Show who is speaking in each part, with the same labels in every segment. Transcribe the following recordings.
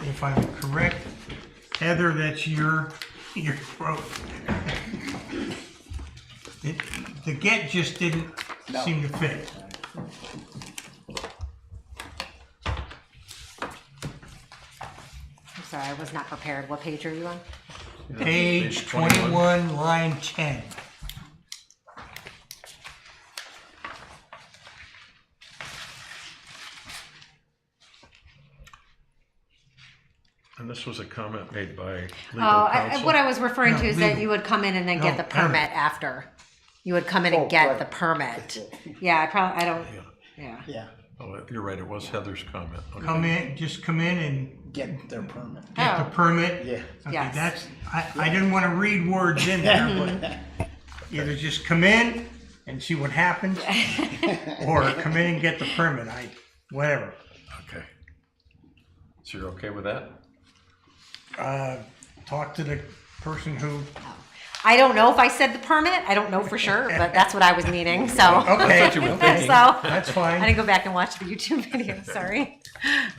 Speaker 1: if I'm correct, Heather, that's your, your throat. It, the get just didn't seem to fit.
Speaker 2: I'm sorry, I was not prepared. What page are you on?
Speaker 1: Page twenty-one, line ten.
Speaker 3: And this was a comment made by
Speaker 2: Oh,
Speaker 3: legal
Speaker 2: I, I-
Speaker 3: counsel.
Speaker 2: what I was referring to
Speaker 1: No,
Speaker 2: is that
Speaker 1: legal.
Speaker 2: you would come in and then get
Speaker 1: No,
Speaker 2: the permit
Speaker 1: permit.
Speaker 2: after. You would come in
Speaker 4: Oh,
Speaker 2: and get
Speaker 4: right.
Speaker 2: the permit. Yeah, I probably, I don't, yeah.
Speaker 4: Yeah,
Speaker 3: Oh, you're right, it was Heather's comment. Okay.
Speaker 2: Um,
Speaker 1: Come in, just come in and
Speaker 4: get their permit.
Speaker 1: get the
Speaker 2: Oh.
Speaker 1: permit.
Speaker 4: Yeah.
Speaker 1: Okay,
Speaker 2: Yes.
Speaker 1: that's, I, I didn't wanna read words in there, but either just come in and see what happens, or come in and get the permit, I, whatever.
Speaker 3: Okay. So you're okay with that?
Speaker 1: Uh, talk to the person who,
Speaker 2: I don't know if I said the permit. I don't know for sure, but that's what I was meaning, so.
Speaker 1: okay,
Speaker 3: you were
Speaker 2: So,
Speaker 3: thinking.
Speaker 2: I
Speaker 1: that's fine,
Speaker 2: didn't go back and watch the YouTube video, sorry.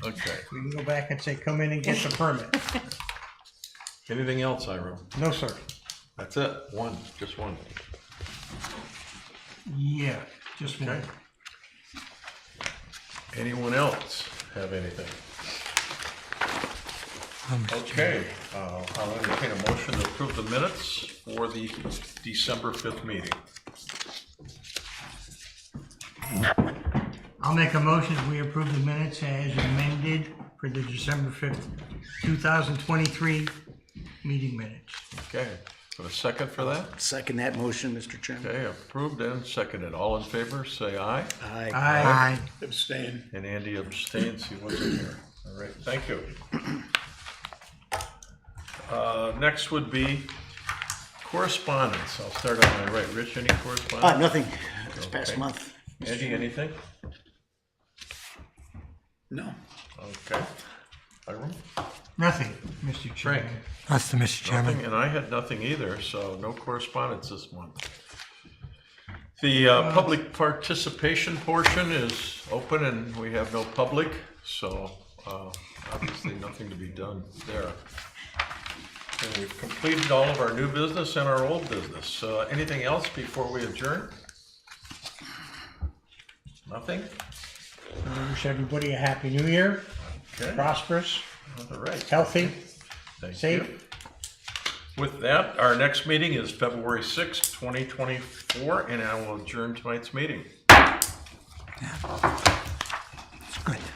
Speaker 3: Okay.
Speaker 1: we can go back and say, come in and get the permit.
Speaker 3: Anything else, Ira?
Speaker 1: No, sir.
Speaker 3: That's it, one, just one.
Speaker 1: Yeah, just one.
Speaker 3: Okay. Anyone else have anything? Okay, uh, I'll entertain a motion to approve the minutes for the December 5th meeting.
Speaker 1: I'll make a motion that we approve the minutes as amended for the December fifth, two thousand twenty-three meeting minutes.
Speaker 3: Okay, got a second for that?
Speaker 4: Second that motion, Mr. Chairman.
Speaker 3: Okay, approved and seconded. All in favor, say aye.
Speaker 4: Aye.
Speaker 1: Aye.
Speaker 4: Abstain.
Speaker 3: And Andy abstains, he wasn't here. All right, thank you. Uh, Next would be correspondence. I'll start on my right. Rich, any
Speaker 4: Uh,
Speaker 3: correspondence?
Speaker 4: nothing, this past
Speaker 3: Okay.
Speaker 4: month.
Speaker 3: Andy, anything?
Speaker 4: No.
Speaker 3: Okay. Hiram?
Speaker 1: Nothing, Mr. Chairman.
Speaker 5: That's the Mr. Chairman.
Speaker 3: Nothing, and I had nothing either, so no correspondence this month. The uh, public participation portion is open and we have no public, so uh, obviously nothing to be done there. And we've completed all of our new business and our old business. Uh, Anything else before we adjourn? Nothing?
Speaker 1: I Wish everybody a happy new year,
Speaker 3: Okay,
Speaker 1: prosperous,
Speaker 3: all right.
Speaker 1: healthy.
Speaker 3: Thank
Speaker 1: Safe.
Speaker 3: you. With that, our next meeting is February sixth, twenty 2024, and I will adjourn tonight's meeting.
Speaker 5: It's good.